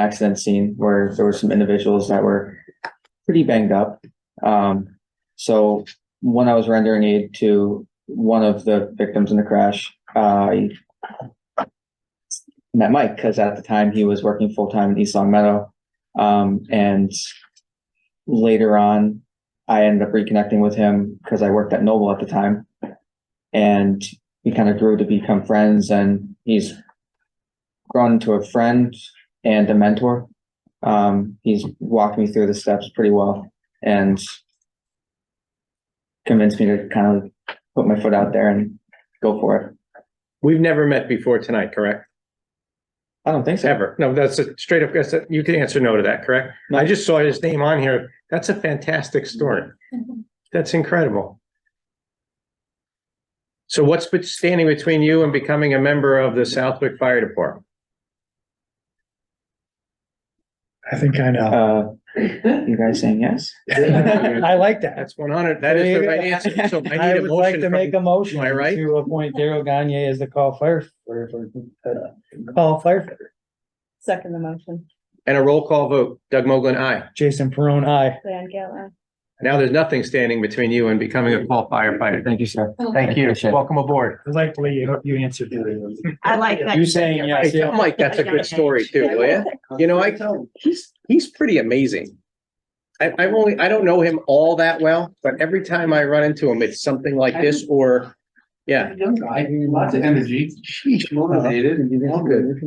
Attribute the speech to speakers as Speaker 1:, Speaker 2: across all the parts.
Speaker 1: accident scene where there were some individuals that were pretty banged up. Um, so when I was rendering aid to one of the victims in the crash, I met Mike because at the time he was working full time in East Long Meadow. Um, and later on, I ended up reconnecting with him because I worked at Noble at the time. And we kind of grew to become friends and he's grown into a friend and a mentor. Um, he's walked me through the steps pretty well and convinced me to kind of put my foot out there and go for it.
Speaker 2: We've never met before tonight, correct?
Speaker 1: I don't think so.
Speaker 2: Ever? No, that's a straight up, that's a- you can answer no to that, correct? I just saw his name on here. That's a fantastic story. That's incredible. So what's been standing between you and becoming a member of the Southwick Fire Department?
Speaker 3: I think I know.
Speaker 1: Uh, you guys saying yes?
Speaker 3: I like that.
Speaker 2: That's one hundred. That is the right answer. So I
Speaker 3: I
Speaker 2: need a
Speaker 3: would like
Speaker 2: motion.
Speaker 3: to make a
Speaker 2: from-
Speaker 3: motion
Speaker 2: Am I right?
Speaker 3: to appoint Daryl Gagne as the call fire, or, or, uh, call firefighter.
Speaker 4: Second the motion,
Speaker 2: And a roll call vote. Doug Mogul, aye.
Speaker 3: Jason Perone, aye.
Speaker 4: Diane Gale,
Speaker 2: Now there's nothing standing between you and becoming a call firefighter.
Speaker 1: Thank you, sir.
Speaker 2: Thank you.
Speaker 1: Appreciate it.
Speaker 2: Welcome aboard.
Speaker 3: Likely you, you answered it.
Speaker 5: I like that.
Speaker 3: You saying
Speaker 2: Hey,
Speaker 3: yes,
Speaker 2: tell
Speaker 3: yeah.
Speaker 2: Mike that's a good story too, will ya? You know, I, he's, he's pretty amazing. I, I've only, I don't know him all that well, but every time I run into him, it's something like this or, yeah.
Speaker 6: Young guy, lots of energy, sheesh, motivated, all good.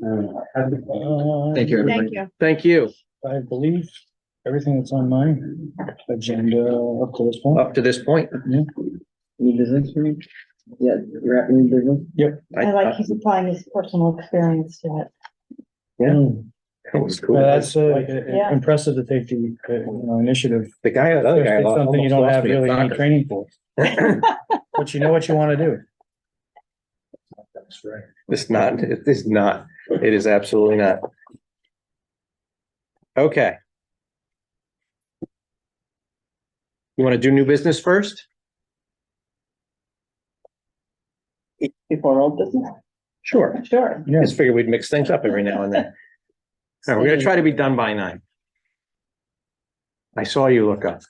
Speaker 3: Uh,
Speaker 1: Thank you.
Speaker 4: thank you.
Speaker 2: Thank you.
Speaker 3: I believe everything that's on my agenda up to this point.
Speaker 2: Up to this point.
Speaker 1: New business for me? Yeah, you're at new business?
Speaker 4: I
Speaker 2: uh,
Speaker 4: like he's applying his personal experience to it.
Speaker 3: Mm.
Speaker 2: That was
Speaker 3: Well,
Speaker 2: cool.
Speaker 3: That's uh,
Speaker 4: Yeah.
Speaker 3: impressive to take the, uh, you know, initiative.
Speaker 2: The guy, the other guy.
Speaker 3: It's
Speaker 2: lost-
Speaker 3: Something
Speaker 2: almost
Speaker 3: you don't
Speaker 2: lost
Speaker 3: have
Speaker 2: me at
Speaker 3: really any
Speaker 2: soccer.
Speaker 3: training for. But you know what you want to do. That's right.
Speaker 2: It's not, it is not, it is absolutely not. Okay. You want to do new business first?
Speaker 4: Before old business?
Speaker 2: Sure.
Speaker 4: Sure.
Speaker 2: I
Speaker 3: Yes.
Speaker 2: just figured we'd mix things up every now and then. All right, we're gonna try to be done by nine. I saw you look up.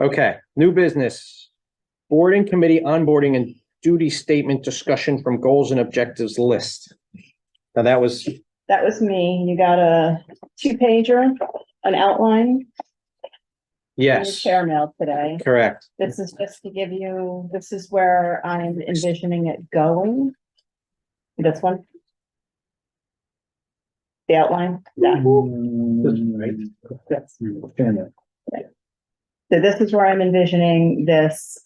Speaker 2: Okay, new business. Board and committee onboarding and duty statement discussion from goals and objectives list. Now, that was,
Speaker 4: That was me. You got a two pager, an outline. in your
Speaker 2: yes,
Speaker 4: Chair mail today.
Speaker 2: correct.
Speaker 4: This is just to give you, this is where I'm envisioning it going. This one. The outline. Yeah. Yes. So this is where I'm envisioning this,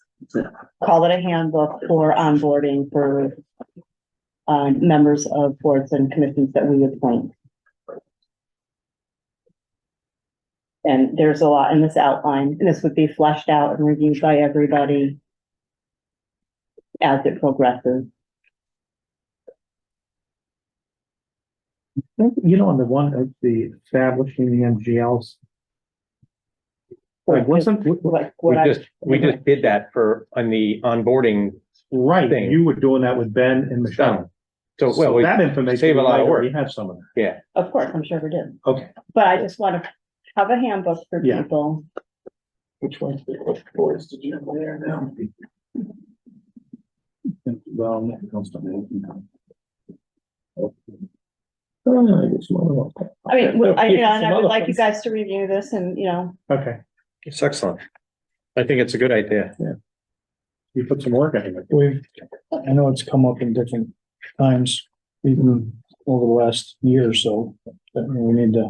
Speaker 4: call it a handbook for onboarding for um, members of boards and commissions that we appoint. And there's a lot in this outline, and this would be fleshed out and reviewed by everybody as it progresses.
Speaker 7: You know, on the one of the establishing the MGLs. Like, wasn't,
Speaker 4: Like
Speaker 2: We
Speaker 4: what I,
Speaker 2: just, we just did that for, on the onboarding
Speaker 7: right,
Speaker 2: Thing.
Speaker 7: you were doing that with Ben and
Speaker 2: done.
Speaker 7: Michelle.
Speaker 2: So, well,
Speaker 7: So
Speaker 2: we-
Speaker 7: that information.
Speaker 2: save a lot of
Speaker 7: we
Speaker 2: work.
Speaker 7: already have some of that.
Speaker 4: of course, I'm sure we did.
Speaker 7: Okay.
Speaker 4: But I just want to have a handbook for
Speaker 7: Yeah.
Speaker 4: people.
Speaker 7: Which ones, which boards did you have there now? Well, no, it comes to me. Oh, I guess one of them.
Speaker 4: I mean,
Speaker 7: Well,
Speaker 4: I, you know, and
Speaker 7: some
Speaker 4: I would
Speaker 7: other
Speaker 4: like you
Speaker 7: ones.
Speaker 4: guys to review this and, you know,
Speaker 7: Okay,
Speaker 2: it's excellent. I think it's a good idea.
Speaker 7: you put some work into it.
Speaker 3: We've, I know it's come up in different times, even over the last year or so, but we need to.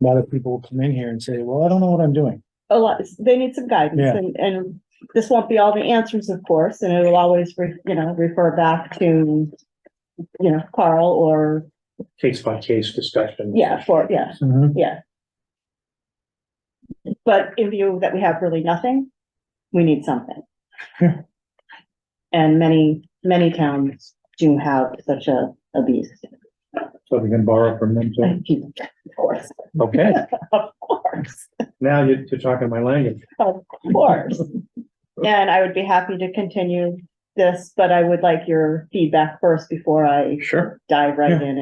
Speaker 3: A lot of people will come in here and say, well, I don't know what I'm doing.
Speaker 4: a lot, they need some guidance
Speaker 3: Yeah.
Speaker 4: and, and this won't be all the answers, of course, and it'll always, re- you know, refer back to, you know, Carl or,
Speaker 7: Case by case discussion.
Speaker 4: yeah, for, yeah,
Speaker 3: Mm-hmm.
Speaker 4: yeah. But in view that we have really nothing, we need something.
Speaker 3: Yeah.
Speaker 4: And many, many towns do have such a, a beast.
Speaker 7: So we can borrow from them too.
Speaker 4: Of course,
Speaker 7: Okay,
Speaker 4: of course.
Speaker 7: now you're you're talking my language.
Speaker 4: Of course. And I would be happy to continue this, but I would like your feedback first before I
Speaker 2: Sure.
Speaker 4: dive right in